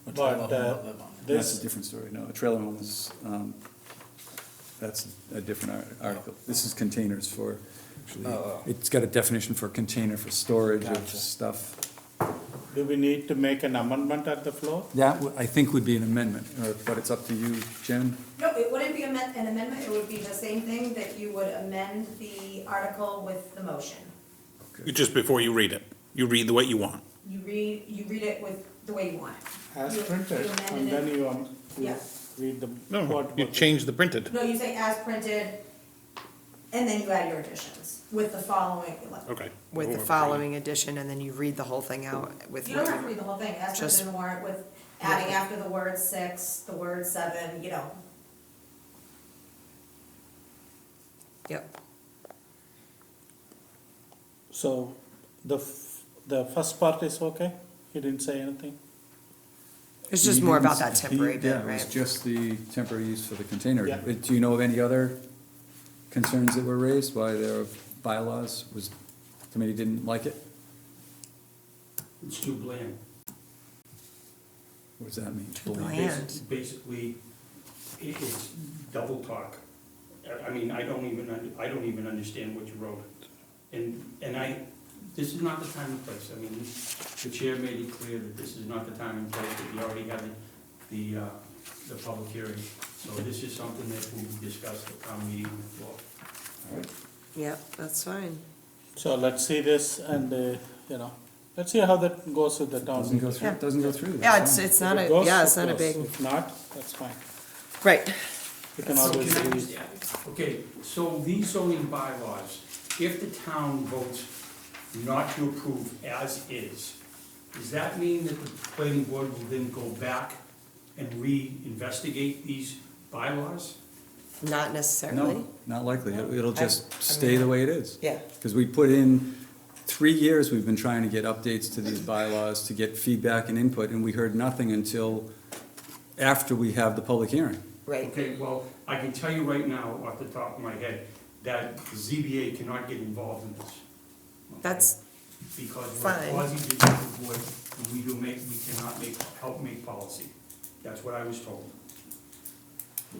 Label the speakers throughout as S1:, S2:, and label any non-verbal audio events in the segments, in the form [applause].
S1: A
S2: But,
S1: trailer home
S2: uh,
S1: won't live on it.
S2: This-
S3: That's a different story, no, a trailer home is, um, that's a different ar- article. This is containers for,
S1: Oh.
S3: it's got a definition for container for storage of
S1: Gotcha.
S3: stuff.
S2: Do we need to make an amendment at the floor?
S3: That, w- I think would be an amendment, or- but it's up to you, Jen.
S4: No, it wouldn't be amen- an amendment, it would be the same thing that you would amend the article with the motion.
S5: You- Just before you read it, you read the what you want.
S4: You read, you read it with the way you want it.
S2: As
S4: You- you
S2: printed, and
S4: amended
S2: then
S4: it.
S2: you, um, you
S4: Yeah.
S2: read the.
S5: No,
S2: what
S5: you
S2: was it.
S5: change the printed.
S4: No, you say as printed, and then you add your additions with the following. like-
S5: Okay.
S3: Oh,
S6: with the following edition, and then you read the whole thing out with.
S4: You don't have to read the whole thing, as printed
S6: Just-
S4: in the warrant with adding after the word six, the word seven, you know.
S6: Yep,
S2: So, the, f- the first part is okay? He didn't say anything?
S6: it's just more about that
S3: He-
S6: temporary bit,
S3: Yeah, it was
S6: right?
S3: just the temporary use for the container.
S2: Yeah.
S3: Uh, Do you know of any other concerns that were raised by their bylaws? Was, committee didn't like it?
S7: It's too bland.
S3: What does that mean?
S6: Bland.
S7: Basically, it is double talk. I- I mean, I don't even, un- I don't even understand what you wrote. And, and I, this is not the time and place. I mean, the chair made it clear that this is not the time and place, that we already had the, the, uh, the public hearing. So this is something that we discussed at town meeting on the floor.
S6: Yep, that's fine.
S2: So let's see this and, uh, you know, let's see how that goes with the town.
S3: Doesn't go
S2: meeting.
S3: through,
S6: Yeah.
S3: doesn't go through. that's
S6: Yeah, it's,
S3: fine.
S6: it's not
S2: If
S6: a,
S2: it goes,
S6: yeah,
S2: it
S6: it's not a
S2: goes.
S6: big,
S2: If not, that's fine.
S6: right,
S2: You can
S6: So
S2: always
S7: Can I
S2: read.
S7: just add? Okay, so these zoning bylaws, if the town votes not to approve as is, does that mean that the planning board will then go back and re-investigate these bylaws?
S6: not necessarily.
S3: No, not likely. It- It'll
S6: I-
S3: just
S6: I
S3: stay
S6: mean-
S3: the way it is.
S6: Yeah.
S3: Because we put in, three years we've been trying to get updates to these bylaws, to get feedback and input, and we heard nothing until after we have the public hearing.
S6: Right,
S7: Okay, well, I can tell you right now, off the top of my head, that the ZBA cannot get involved in this.
S6: that's,
S7: Because we're
S6: Fine.
S7: a quasi-judicial board, and we do make, we cannot make, help make policy. That's what I was told.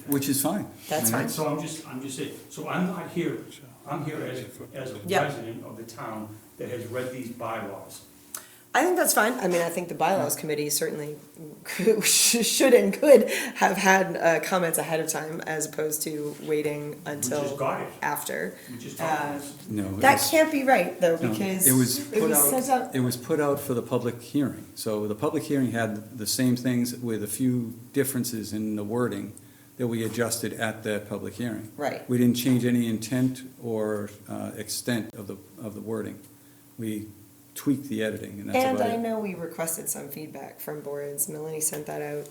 S3: Which is fine.
S6: That's
S3: I mean,
S6: fine.
S7: So I'm just, I'm just saying, so I'm not here, I'm here as, as a
S6: Yeah.
S7: resident of the town that has read these bylaws.
S6: I think that's fine. I mean, I think the bylaws committee certainly [laughs] should and could have had uh, comments ahead of time as opposed to waiting until uh,
S7: got it.
S6: after.
S7: We just talked about this.
S3: No. it
S6: That
S3: was-
S6: can't be right though,
S3: no,
S6: because
S3: It was
S6: it
S3: put
S6: was sent
S3: out,
S6: out.
S3: it was put out for the public hearing. So the public hearing had the same things with a few differences in the wording that we adjusted at that public hearing.
S6: Right.
S3: We didn't change any intent or uh, extent of the, of the wording. We tweaked the editing and that's
S6: And
S3: about it.
S6: I know we requested some feedback from boards. Melanie sent that out,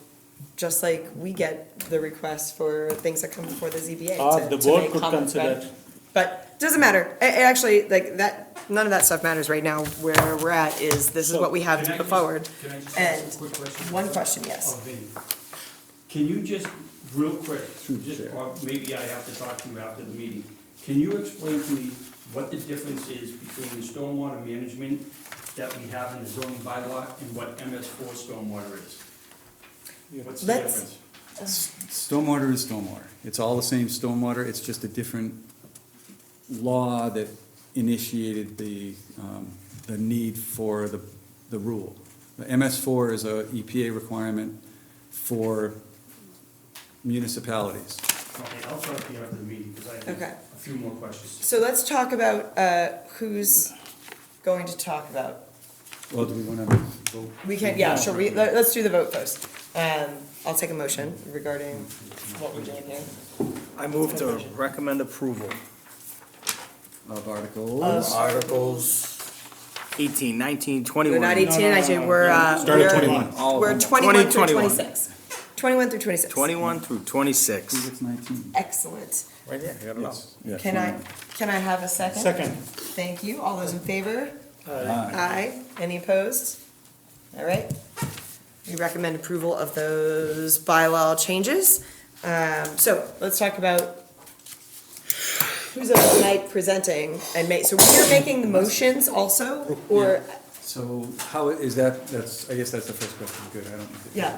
S6: just like we get the requests for things that come before the ZBA.
S7: Ah,
S2: Or
S6: to-
S2: the
S6: to
S2: board
S6: make
S2: could
S6: comments,
S2: consider
S6: but-
S2: it.
S6: But doesn't matter. It, it actually, like, that, none of that stuff matters right now. Where we're at is, this is what we have
S7: Can I
S6: to put
S7: just-
S6: forward.
S7: Can I just
S6: And
S7: ask a quick question? Oh.
S6: one question, yes.
S7: Of Vinnie. Can you just, real quick,
S3: the
S7: just,
S3: chair.
S7: or maybe I have to talk to you after the meeting. Can you explain to me what the difference is between the stormwater management that we have in the zoning bylaw and what MS four stormwater is? What's the
S6: Let's-
S7: difference?
S3: Stormwater is stormwater. It's all the same stormwater, it's just a different law that initiated the, um, the need for the, the rule. The MS four is a EPA requirement for municipalities.
S7: Okay, I'll talk to you after the meeting, because I
S6: Okay.
S7: have a few more questions.
S6: So let's talk about, uh, who's going to talk about.
S3: Well, do we wanna vote?
S6: We can, yeah, sure, we, let, us do the vote first. Um, I'll take a motion regarding what we're doing here.
S1: I move to recommend approval
S3: Of articles?
S6: Uh,
S1: of Articles 18, 19, 21.
S6: We're not eighteen, and nineteen, we're, uh,
S5: Start
S6: we're.
S5: at 21.
S1: All of
S6: We're
S1: them.
S6: twenty-one through
S1: 20, 21.
S6: twenty-six. Twenty-one through twenty-six.
S1: 21 through
S3: I think
S5: 26.
S3: it's nineteen.
S6: Excellent.
S1: Right there, I got it all.
S3: Yes, yeah,
S6: Can I,
S3: 21.
S6: can I have a second?
S2: Second,
S6: Thank you. All those in favor?
S3: Aye.
S6: Aye. Any opposed? All right. We recommend approval of those bylaw changes. Um, so let's talk about who's up tonight presenting and ma, so we're making the motions also, or,
S3: So how is that, that's, I guess that's the first question, good, I don't.
S6: yeah,